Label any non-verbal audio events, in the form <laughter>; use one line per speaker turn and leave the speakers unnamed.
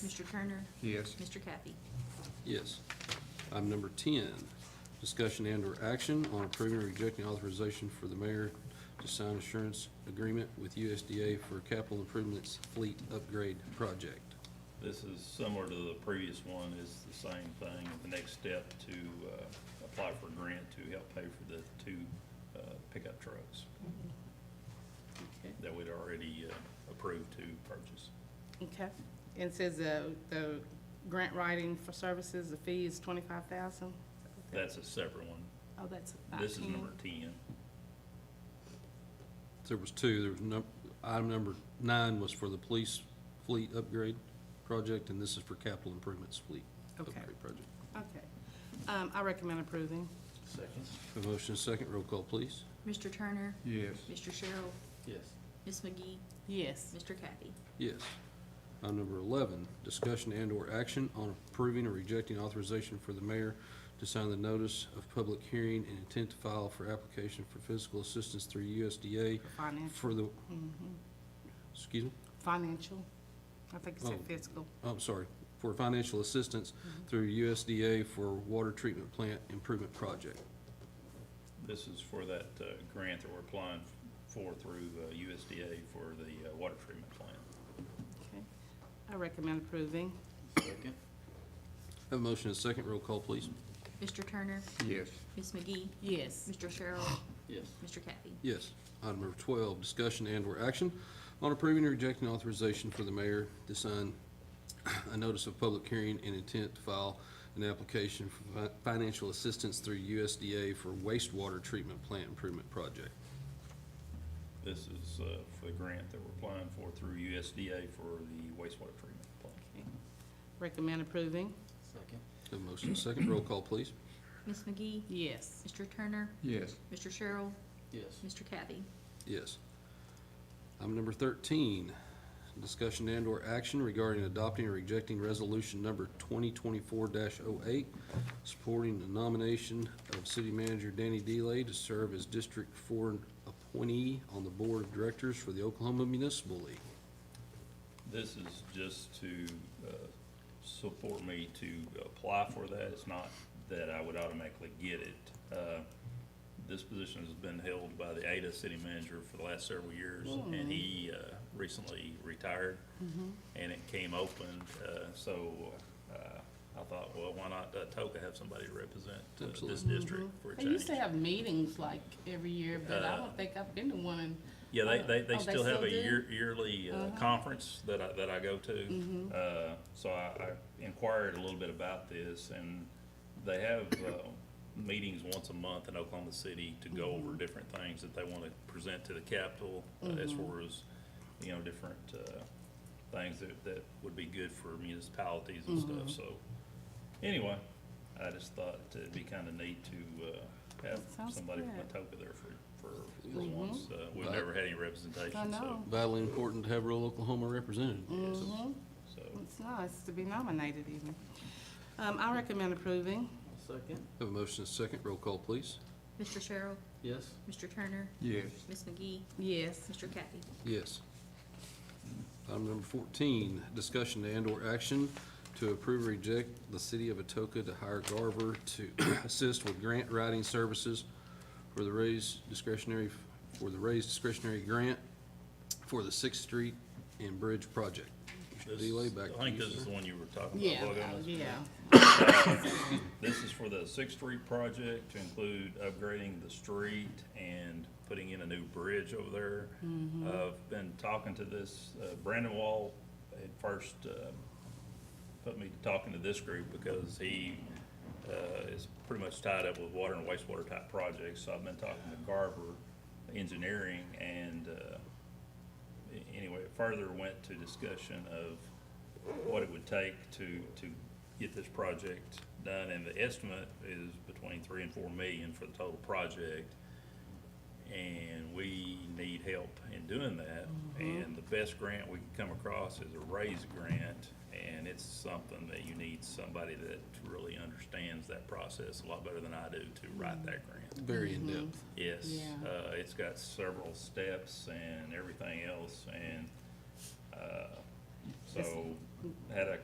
Mr. Turner?
Yes.
Mr. Kathy?
Yes. Item number 10, discussion and/or action on approving or rejecting authorization for the mayor to sign assurance agreement with USDA for capital improvements fleet upgrade project.
This is similar to the previous one, it's the same thing, the next step to uh, apply for a grant to help pay for the two uh, pickup trucks that we'd already uh, approved to purchase.
Okay, and it says the, the grant writing for services, the fee is twenty-five thousand?
That's a separate one.
Oh, that's
This is
nineteen.
number 10.
There was two, there was num, item number nine was for the police fleet upgrade project, and this is for capital improvements fleet
Okay.
upgrade project.
Okay, um, I recommend approving.
Second.
A motion and a second, roll call, please.
Mr. Turner?
Yes.
Mr. Sherrill?
Yes.
Ms. McGee?
Yes,
Mr. Kathy?
Yes. Item number 11, discussion and/or action on approving or rejecting authorization for the mayor to sign the notice of public hearing and intent to file for application for physical assistance through USDA
financial,
for the, excuse me,
financial, I think it said
Oh.
fiscal.
I'm sorry, for financial assistance through USDA for water treatment plant improvement project.
This is for that uh, grant that we're applying for through uh, USDA for the uh, water treatment plant.
Okay, I recommend approving.
Have a motion and a second, roll call, please.
Mr. Turner?
Yes.
Ms. McGee?
Yes,
Mr. Sherrill? Yes. Mr. Kathy?
Yes. Item number 12, discussion and/or action on approving or rejecting authorization for the mayor to sign a notice of public hearing and intent to file an application for fi- financial assistance through USDA for wastewater treatment plant improvement project.
This is uh, for the grant that we're applying for through USDA for the wastewater treatment plant.
recommend approving.
Have a motion and a second. Roll call, please.
Ms. McGee?
Yes,
Mr. Turner?
Yes.
Mr. Sherrill? Yes. Mr. Kathy?
Yes. Item number 13, discussion and/or action regarding adopting or rejecting resolution number 2024-08, supporting the nomination of city manager Danny Delay to serve as District 4 appointee on the Board of Directors for the Oklahoma Municipal League.
This is just to uh, support me to apply for that. It's not that I would automatically get it. Uh, This position has been held by the Ada city manager for the last several years, and he uh, recently retired. And it came open, uh, so uh, I thought, well, why not uh, Toka have somebody represent uh, this
Absolutely.
district for a
they
change?
used to have meetings like every year, but I
Uh,
don't think I've been to one in
Yeah, they, they,
Oh,
they
they
still have
still
a
do? Uh-huh.
year, yearly uh, conference that I, that I go
Mm-hmm.
to. Uh, so I, I inquired a little bit about this and they have, uh, meetings once a month in Oklahoma City to go
Mm-hmm.
over different things that they want to present to the Capitol uh, as
Mm-hmm.
far as, you know, different, uh, things that, that would be good for municipalities and
Mm-hmm.
stuff, so. Anyway, I just thought it'd be kind of neat to, uh, have
That sounds
somebody from
good.
Atoka there for, for, for once. Uh, We've never had any
I
representation, so,
know.
Vitally important to have rural Oklahoma represented.
Mhm.
so.
It's nice to be nominated even. Um, I recommend approving.
Second,
Have a motion and a second. Roll call, please.
Mr. Sherrill?
yes.
Mr. Turner?
Yes.
Ms. McGee?
Yes,
Mr. Kathy?
Yes. Item number fourteen, discussion and/or action to approve or reject the city of Atoka to hire Garver to <clears throat> assist with grant writing services for the raised discretionary, for the raised discretionary grant for the Sixth Street and Bridge project. Mr.
This-
Delay, back
I
to
think
you,
this is
sir.
the one you were talking
yeah,
about. wasn't it?
yeah.
This is for the Sixth Street project to include upgrading the street and putting in a new bridge over there. Uh, I've been talking to this, uh, Brandon Wall had first uh, put me to talking to this group because he uh, is pretty much tied up with water and wastewater type projects. So I've been talking to Garver Engineering and uh, a- anyway, it further went to discussion of what it would take to, to get this project done, and the estimate is between three and four million for the total project. And we need help in doing that, and the best grant we can come across is a raise grant, and it's something that you need somebody that really understands that process a lot better than I do to write that grant.
Very in-depth.
Yes,
Yeah.
uh, it's got several steps and everything else, and, uh, so, had a